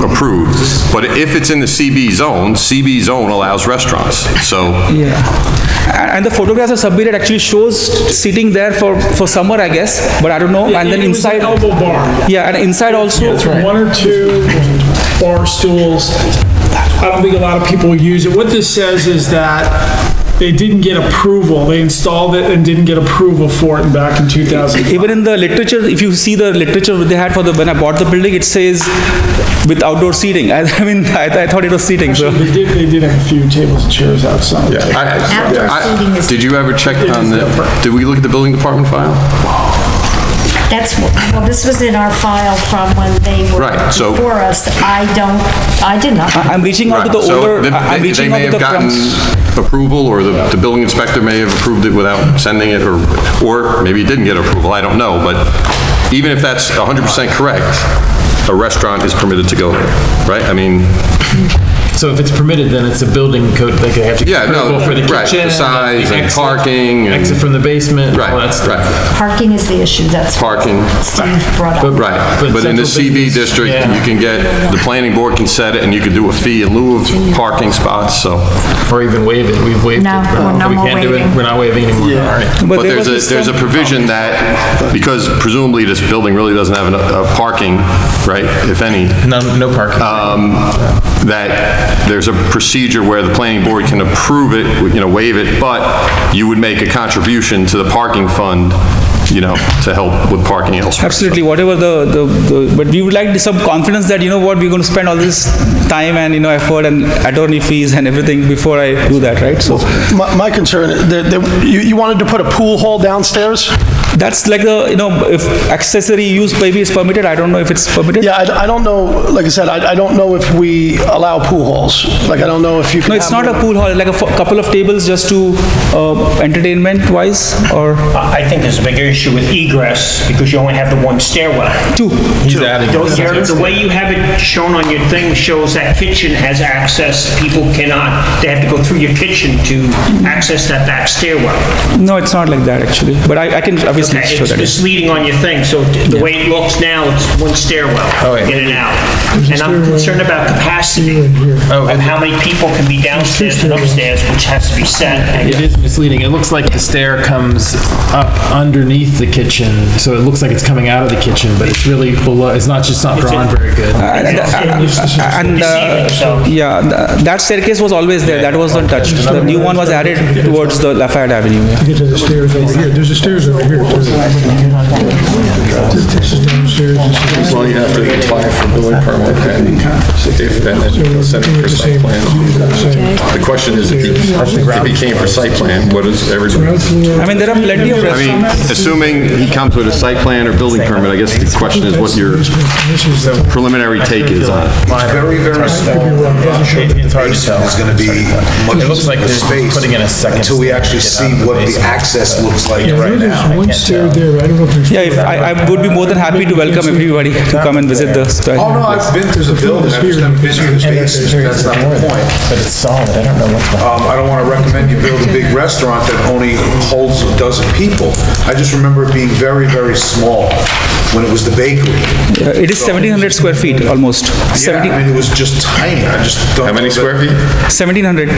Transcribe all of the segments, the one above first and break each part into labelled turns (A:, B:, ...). A: approved. But if it's in the CB zone, CB zone allows restaurants, so.
B: Yeah. And and the photographs are submitted actually shows sitting there for, for summer, I guess, but I don't know. And then
C: It was an
B: inside,
C: Elbow bar.
B: yeah, and inside also.
C: One or two bar stools. I don't think a lot of people use it. What this says is that they didn't get approval. They installed it and didn't get approval for it back in 2000.
B: Even in the literature, if you see the literature they had for the, when I bought the building, it says with outdoor seating. I I mean, I I thought it was seating, so.
C: They did, they did have a few tables and chairs outside.
A: I-
D: Outdoor
A: I-
D: seating is-
A: Did you ever check on the, did we look at the building department file?
D: That's, well, this was in our file from when they were
A: Right, so-
D: before us. I don't, I did not.
B: I'm reaching out to the
A: Right, so
B: older,
A: they-
B: I'm
A: they-
B: reaching out to
A: They
B: the. crumbs.
A: may have gotten approval, or the, the building inspector may have approved it without sending it, or, or maybe it didn't get approval, I don't know, but even if that's 100% correct, a restaurant is permitted to go there, right? I mean,
E: So if it's permitted, then it's a building code, like they have to.
A: Yeah, no,
E: approval for the
A: right, the
E: kitchen,
A: size
E: the
A: and
E: exit,
A: parking and-
E: Exit from the basement,
A: right,
E: all that stuff.
A: right,
D: Parking is the issue, that's. what
A: Parking.
D: Steve brought up.
A: right.
E: But
A: But in the
E: central
A: CB
E: business,
A: district,
E: yeah.
A: you can get, the planning board can set it, and you can do a fee in lieu of parking spots, so.
E: Or even waive it, we've waived it.
D: No,
E: but
D: we're no
E: we
D: more
E: can't do it.
D: waiving.
E: We're not waiving anymore, all right.
A: But
B: there
A: there's
B: was
A: a, there's a
B: some-
A: provision that, because presumably this building really doesn't have enough uh, parking, right, if any,
E: No, no parking.
F: Uh,
A: um, that there's a procedure where the planning board can approve it, you know, waive it, but you would make a contribution to the parking fund, you know, to help with parking elsewhere.
B: Absolutely, whatever the, the, the- but we would like some confidence that, you know what, we're going to spend all this time and, you know, effort and attorney fees and everything before I do that, right? So
F: My my concern, that- that you you wanted to put a pool hall downstairs?
B: that's like the, you know, if accessory use maybe is permitted, I don't know if it's permitted.
F: Yeah, I I don't know, like I said, I I don't know if we allow pool halls. Like, I don't know if you can
B: No, it's
F: have
B: not a
F: more-
B: pool hall, like a fo- couple of tables just to, uh, entertainment wise or
G: I I think there's a bigger issue with egress because you only have the one stairwell.
B: two.
E: He's adding.
G: Your- The way you have it shown on your thing shows that kitchen has access. People cannot, they have to go through your kitchen to access that back stairwell.
B: No, it's not like that actually, but I, I can obviously
G: Okay,
B: show
G: It's
B: that.
G: misleading on your thing, so the way it looks now, it's one stairwell,
E: Oh, yeah.
G: in and out. And I'm concerned about capacity
E: Oh,
G: of
E: and-
G: how many people can be downstairs and upstairs, which has to be set. I
E: It is misleading. It looks like the stair comes up underneath the kitchen, so it looks like it's coming out of the kitchen, but it's really below, it's not, just not drawn very good.
B: And, uh, yeah, th- that staircase was always there, that was not touched. The new one was added towards the Lafayette Avenue. yeah.
H: Get to the stairs over here, there's a stairs over here. too. This is downstairs, this is-
I: Well, you have to apply for building permit and if, and then you send it for site plan. The question is, if he, if he came for site plan, what is everybody?
B: I mean, there are plenty of
A: I mean,
B: restaurants.
A: assuming he comes with a site plan or building permit, I guess the question is what your
H: this is the-
A: preliminary take is on it.
H: I
J: Very, very small.
H: could be wrong, it doesn't show.
E: It's hard to tell.
J: Basement is gonna be much
E: It looks like
J: less
E: they're
J: space
E: putting in a second
J: Until we
E: step
J: actually
E: to get
J: see
E: out of the
J: what the
E: basement.
J: access looks like
H: I know
J: right now.
H: there's one stair there, I don't know if there's.
B: Yeah, if- I, I would be more than happy to welcome everybody to come and visit the spa.
J: Oh, no, I've been through the building, I've just never been through the spaces, that's not the point.
E: But it's solid, I don't know what's behind
J: Um, I don't wanna recommend you build a big restaurant that only holds a dozen people. I just remember it being very, very small when it was the bakery.
B: Uh, It is 1700 square feet, almost.
J: Yeah, I
B: 17-
J: mean, it was just tiny, I just don't.
A: How many
J: know that-
A: square feet?
B: 1700.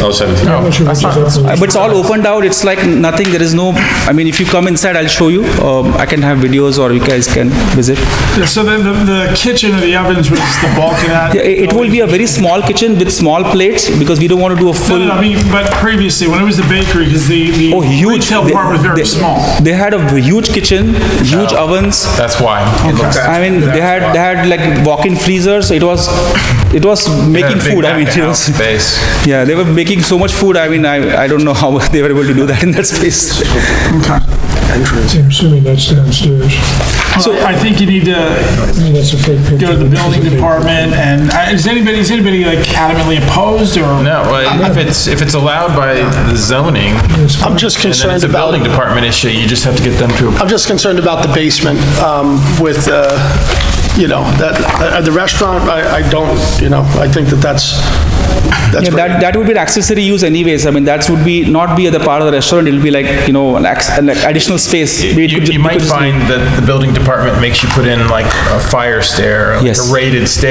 A: Oh, 17.
H: I'm not sure which is up and-
B: Uh, But it's all opened out, it's like nothing, there is no, I mean, if you come inside, I'll show you. Um, I can have videos or you guys can visit.
C: Yeah, So then the, the kitchen or the ovens was the bulk of that.
B: Yeah, It it will be a very small kitchen with small plates because we don't want to do a
C: No,
B: full.
C: no, no, I mean, but previously, when it was the bakery, because the, the
B: Oh, huge.
C: retail
B: They-
C: part was very
B: they-
C: small.
B: They had a huge kitchen, huge ovens.
E: That's why. It looks-
B: I mean, they had, they had like walk-in freezers. It was, it was making
E: Big
B: food. I mean, it
E: back-of-house
B: was,
E: Space.
B: yeah, they were making so much food. I mean, I, I don't know how they were able to do that in that space.
H: I'm assuming that's downstairs.
C: So I think you need to
H: I mean, that's a fake picture.
C: go to the
H: but this is
C: building
H: a fake
C: department and, uh, is anybody, is anybody like adamantly opposed or?
E: No, well, if it's, if it's allowed by the zoning,
F: I'm just
E: and then
F: concerned
E: it's a
F: about,
E: building department issue, you just have to get them to approve.
F: I'm just concerned about the basement um, with, uh, you know, that, uh, the restaurant, I I don't, you know, I think that that's, that's
B: Yeah,
F: very-
B: that, that would be an accessory use anyways. I mean, that would be, not be at the part of the restaurant. It'll be like, you know, an acc- like additional space. We
E: You,
B: could ju-
E: you
B: we
E: might
B: could just-
E: find that the building department makes you put in like a fire stair, like
B: Yes.
E: a rated stair.